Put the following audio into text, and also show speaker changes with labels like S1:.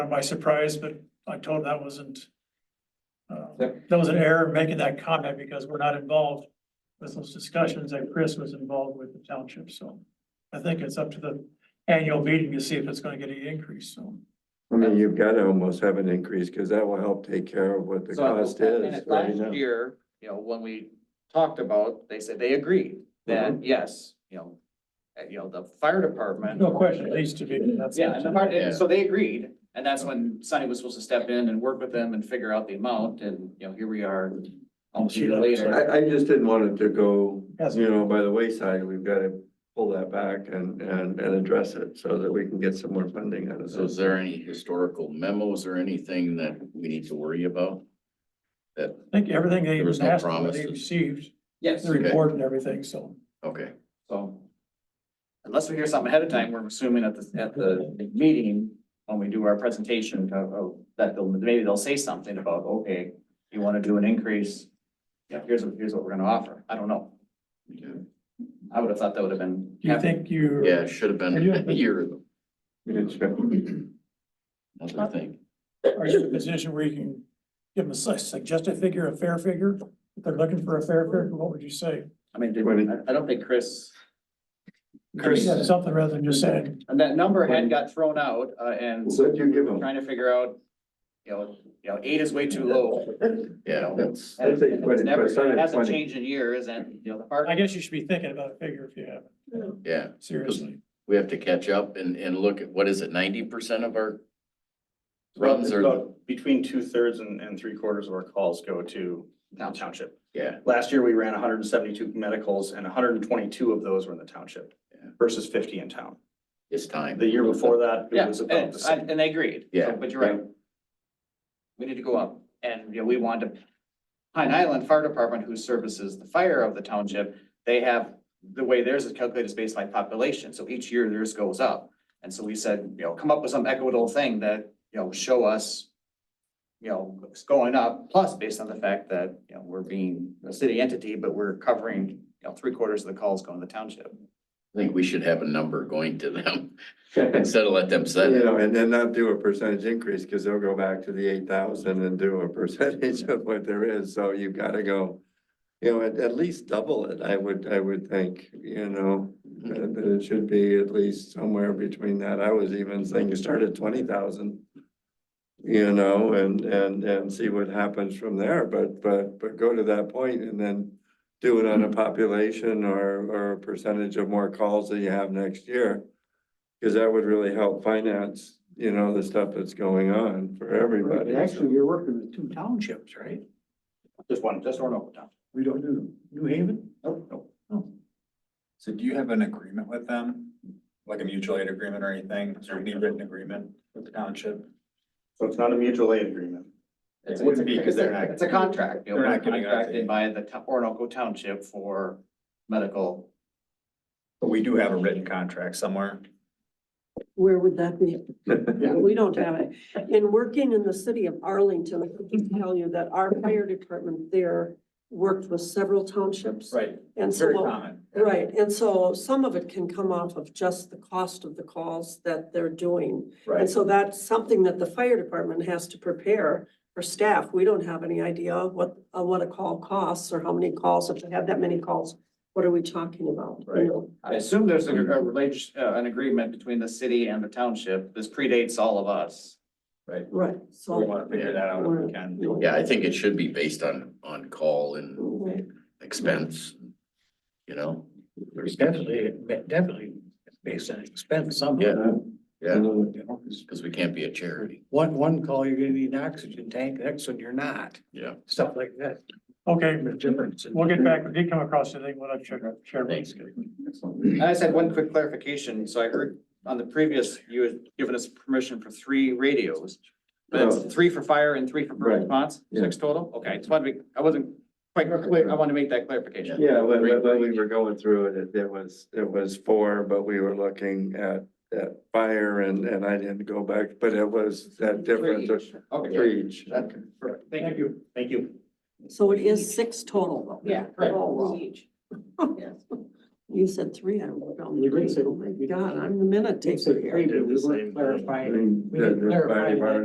S1: by surprise, but I told him that wasn't. uh,
S2: Yep.
S1: That was an error making that comment because we're not involved with those discussions that Chris was involved with the township, so. I think it's up to the annual meeting to see if it's gonna get any increase, so.
S3: I mean, you've got to almost have an increase because that will help take care of what the
S2: So,
S3: cost
S2: and
S3: is
S2: it-
S3: right now.
S2: Last year, you know, when we talked about, they said they agreed that, yes, you know, uh, you know, the fire department.
S1: No question, it needs to be, that's.
S2: Yeah, and the fire, and so they agreed, and that's when Sunny was supposed to step in and work with them and figure out the amount, and, you know, here we are almost a year later.
S3: I, I just didn't want it to go,
S1: Yes.
S3: you know, by the wayside. We've got to pull that back and, and, and address it so that we can get some more funding out of
S4: So is
S3: this.
S4: there any historical memos or anything that we need to worry about? That,
S1: I think everything they
S4: There was no
S1: asked, for, they
S4: promises.
S1: received,
S2: Yes,
S1: the report and everything, so.
S4: okay,
S2: so. Unless we hear something ahead of time, we're assuming at the, at the meeting, when we do our presentation, uh, uh, that they'll, maybe they'll say something about, okay, you wanna do an increase? Yeah, here's, what- here's what we're gonna offer, I don't know, I would have thought that would have been.
S1: Do you think you?
S4: yeah, it should have been a year ago,
S3: It's-
S4: another thing.
S1: Are you in a position where you can give them a su- suggested figure, a fair figure? If they're looking for a fair figure, what would you say?
S2: I mean, did-
S3: When
S2: I, I don't think Chris.
S3: Chris-
S1: Yeah, Something rather than just saying,
S2: And that number had got thrown out, uh, and
S3: What'd you give them?
S2: trying to figure out, you know, you know, eight is way too low.
S4: Yeah, that's,
S3: I'd
S2: And
S3: say
S2: it's
S3: 20,
S2: never,
S3: but
S2: it hasn't
S3: 20.
S2: changed in years, and, you know, the park.
S1: I guess you should be thinking about a figure if you have,
S4: yeah,
S1: seriously.
S4: we have to catch up and, and look at, what is it, ninety percent of our runs are,
S5: About between two thirds and, and three quarters of our calls go to the township.
S4: yeah,
S5: Last year, we ran hundred and seventy-two medicals and hundred and twenty-two of those were in the township
S4: Yeah.
S5: versus fifty in town.
S4: it's time.
S5: The year before that, it
S2: Yeah,
S5: was about
S2: and,
S5: the
S2: I-
S5: same.
S2: and they agreed.
S4: Yeah.
S2: So, But you're right. We need to go up, and, you know, we wanted to, Pine Island Fire Department, who services the fire of the township, they have, the way theirs is calculated is based by population, so each year theirs goes up. And so we said, you know, come up with some equitable thing that, you know, show us, you know, it's going up, plus based on the fact that, you know, we're being a city entity, but we're covering, you know, three quarters of the calls going to the township.
S4: I think we should have a number going to them
S3: You
S4: instead of let them set it.
S3: know, and then not do a percentage increase because they'll go back to the eight thousand and do a percentage of what there is. So you've got to go, you know, at, at least double it, I would, I would think, you know, that that it should be at least somewhere between that. I was even thinking start at twenty thousand. You know, and, and, and see what happens from there, but, but, but go to that point and then do it on a population or, or a percentage of more calls that you have next year. Cause that would really help finance, you know, the stuff that's going on for everybody.
S6: Actually, you're working with two townships, right?
S2: Just one, just one over town.
S6: We don't do New Haven?
S2: Nope, nope.
S7: So do you have an agreement with them, like a mutual aid agreement or anything? Is there any written agreement with the township?
S5: So it's not a mutual aid agreement.
S2: It's
S7: It
S2: a, it's
S7: wouldn't
S2: a,
S7: be, 'cause
S2: it's
S7: they're
S2: a,
S7: not-
S2: it's a contract. you know,
S7: they're
S2: we're
S7: not giving us
S2: Contracted
S7: a-
S2: by the to- Orinoco Township for medical.
S7: But we do have a written contract somewhere.
S8: Where would that be? We don't have it. In working in the city of Arlington, I can tell you that our fire department there worked with several townships.
S7: Right.
S8: And
S7: Very
S8: so,
S7: common.
S8: right, and so some of it can come off of just the cost of the calls that they're doing. And
S7: Right.
S8: so that's something that the fire department has to prepare for staff. We don't have any idea of what, of what a call costs or how many calls, if they have that many calls, what are we talking about? you
S7: Right.
S8: know?
S2: I assume there's a, a relation, uh, an agreement between the city and the township. This predates all of us.
S7: Right.
S8: Right,
S7: So we
S8: so.
S7: want to figure that out if we can.
S4: Yeah, I think it should be based on, on call and
S8: Mm-hmm.
S4: expense, you know?
S6: It's definitely, definitely based on expense
S4: Yeah.
S6: somehow.
S4: Yeah,
S6: You know, 'cause
S4: because we can't be a charity.
S6: One, one call, you're gonna need an oxygen tank, next one, you're not,
S4: Yeah.
S6: stuff like that,
S1: Okay,
S6: the difference. in-
S1: we'll get back, if you come across anything, we'll have to share.
S4: Thanks.
S2: And I just had one quick clarification. So I heard on the previous, you had given us permission for three radios. But
S3: Oh.
S2: it's three for fire and three for
S3: Right.
S2: burn response,
S3: Yeah.
S2: six total? Okay, I just wanted to, be- I wasn't quite clear. I want to make that clarification.
S3: Yeah, when, when when we were going through it, it, it was, it was four, but we were looking at, at fire and, and I didn't go back, but it was that difference of
S2: Okay,
S3: three each.
S2: That- thank you.
S5: Thank you.
S8: So it is six total though?
S2: Yeah.
S8: Oh, wow. You said three, I wrote down
S5: We did
S8: three.
S5: say-
S8: Oh my God, I'm the minute taker here.
S5: We were
S3: I
S5: clarifying
S3: mean,
S5: We need to
S3: that- that's
S5: clarify
S3: why I
S5: that.